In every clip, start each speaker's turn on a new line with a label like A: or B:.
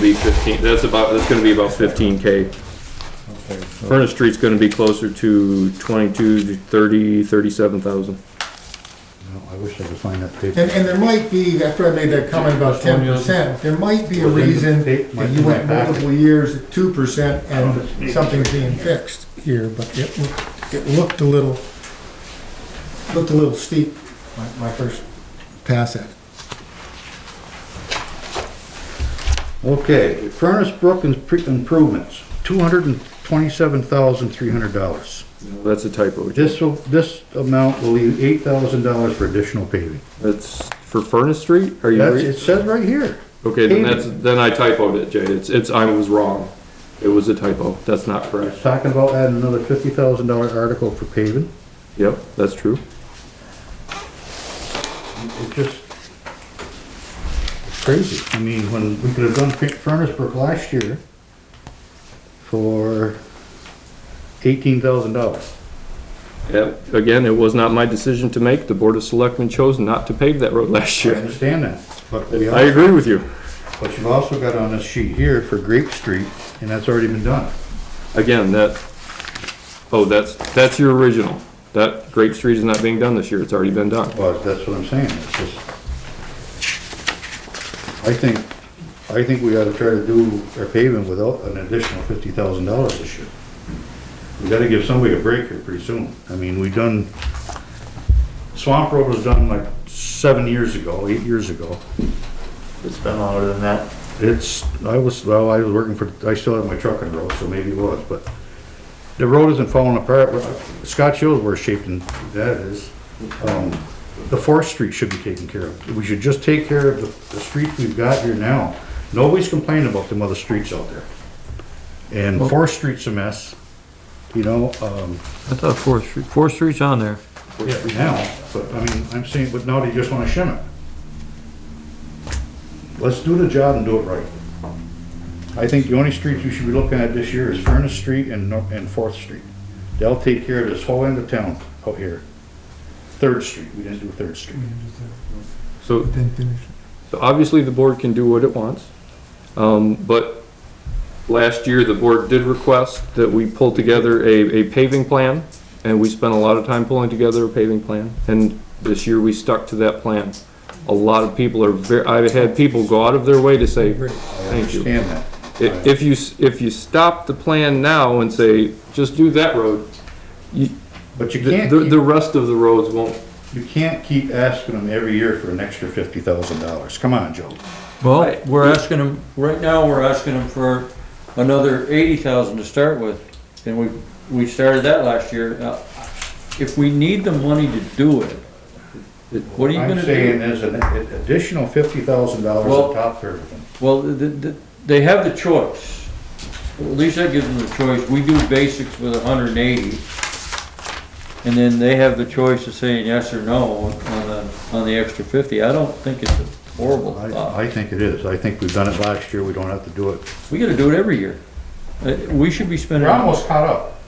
A: be fifteen, that's about, that's gonna be about fifteen K.
B: Okay, so-
A: Furnace Street's gonna be closer to twenty-two to thirty, thirty-seven thousand.
B: no, I wish I could find that paper.
C: And, and there might be, after I made that comment about ten percent, there might be a reason that you went multiple years at two percent and something's being fixed here, but it, loo- it looked a little, looked a little steep, my, my first pass at it.
B: Okay, Furnace Brook and pre- improvements, two hundred and twenty-seven thousand, three hundred dollars.
A: That's a typo.
B: This will, this amount will leave eight thousand dollars for additional paving.
A: That's for Furnace Street? Are you,
B: That's,
A: re-
B: it says right here.
A: okay, then
B: paving.
A: that's, then I typoed it, Jay. It's, it's, I was wrong. It was a typo. That's not correct.
B: It's talking about adding another fifty thousand dollar article for paving.
A: Yep, that's true.
B: It just, it's crazy. I mean, when we could have done Fur- Furnace Brook last year for eighteen thousand dollars.
A: Yep, again, it was not my decision to make. The Board of Selectmen chose not to pave that road last
B: I
A: year.
B: understand that, but we
A: I
B: also,
A: agree with you.
B: but you've also got on this sheet here for Grape Street, and that's already been done.
A: Again, that, oh, that's, that's your original. That Grape Street is not being done this year. It's already been done.
B: Well, that's what I'm saying, it's just. I think, I think we gotta try to do our paving without an additional fifty thousand dollars this year. We gotta give somebody a break here pretty soon, I mean, we done, Swamp Road was done like seven years ago, eight years ago.
D: It's been longer than that.
B: It's, I was, well, I was working for, I still have my truck and road, so maybe it was, but the road isn't falling apart. Scotch Hill's worse shape than that is. Um, the Fourth Street should be taken care of. We should just take care of the, the streets we've got here now. Nobody's complaining about them other streets out there. And Fourth Street's a mess, you know, um,
D: I thought Fourth Street, Fourth Street's on there.
B: now, but I mean, I'm saying, but now they just wanna shim it. Let's do the job and do it right. I think the only streets we should be looking at this year is Furnace Street and, Nor- and Fourth Street. They'll take care of this whole end of town out here. Third Street, we didn't do Third Street.
A: So
C: Didn't finish.
A: So obviously, the board can do what it wants, um, but last year, the board did request that we pull together a, a paving plan, and we spent a lot of time pulling together a paving plan, and this year, we stuck to that plan. A lot of people are ver, I've had people go out of their way to say, thank you.
B: Understand that.
A: I- If you, s- if you stop the plan now and say, just do that road, you,
B: But you
A: the,
B: can't,
A: the- the
B: keep-
A: rest of the roads won't,
B: you can't keep asking them every year for an extra fifty thousand dollars. Come on, Joe.
E: Well,
A: Right.
E: we're asking them, right now, we're asking them for another eighty thousand to start with, and we, we started that last year. Now, If we need the money to do it, what are you
B: I'm
E: gonna
B: saying
E: do?
B: there's an additional fifty thousand dollars
E: Well-
B: on top for everything.
E: Well, the, the, they have the choice. At least that gives them the choice. We do basics with hundred and eighty. And then they have the choice of saying yes or no on the, on the extra fifty. I don't think it's a horrible thought.
B: I, I think it is. I think we've done it last year. We don't have to do it.
E: We gotta do it every year. Uh, We should be spending.
B: We're almost caught up.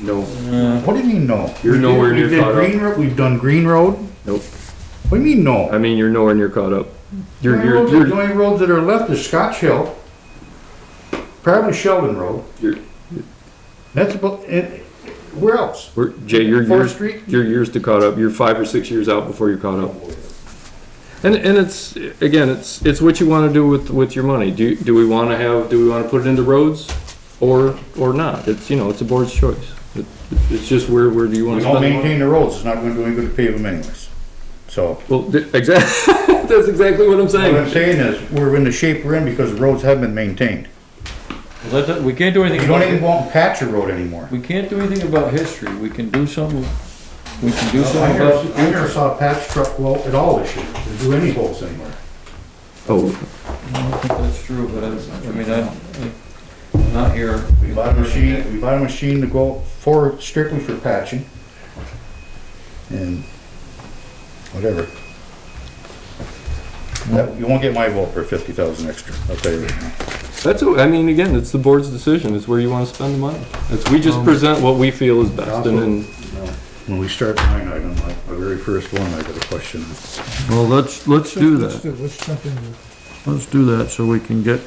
A: no,
E: Uh,
B: What do you mean no?
A: You're
B: We did-
A: nowhere
B: we
A: near
B: did
A: caught up.
B: Green Ro- We've done Green Road.
A: nope.
B: What do you mean no?
A: I mean, you're nowhere near caught up. You're,
B: Green Road's
A: you're,
B: The
A: you're,
B: only roads that are left is Scotch Hill, probably Sheldon Road.
A: You're-
B: That's about, and where else?
A: We're, Jay, you're
B: Fourth
A: years,
B: Street?
A: you're years to caught up. You're five or six years out before you're caught up. And, and it's, again, it's, it's what you wanna do with, with your money. Do, you- do we wanna have, do we wanna put it into roads or, or not? It's, you know, it's a board's choice. It- It's just where, where do you wanna
B: We don't
A: spend the money?
B: maintain the roads. It's not gonna do any good to pave them anyways. So,
A: Well, exactly, that's exactly what I'm
B: what
A: saying.
B: I'm saying is, we're in the shape we're in because the roads haven't been maintained.
E: Well, that, we can't do
B: You
E: anything
B: don't
E: about
B: even
E: it.
B: go out and patch a road anymore.
E: We can't do anything about history. We can do something. We can do
B: I
E: something
B: never,
E: about.
B: I never saw a patch truck go out at all this year, to do any holes anywhere.
A: Oh,
E: I don't think that's true, but I, I mean, I, I'm not here.
B: We bought a machine, we bought a machine to go for, strictly for patching. And whatever. That- You won't get my vote for fifty thousand extra, I'll tell you right now.
A: that's, what- I mean, again, it's the board's decision. It's where you wanna spend the money. It's, we just present what we feel is best and then.
B: When we start line item, like my very first one, I got a question.
D: Well, let's, let's do that.
C: Let's jump into it.
D: Let's do that so we can get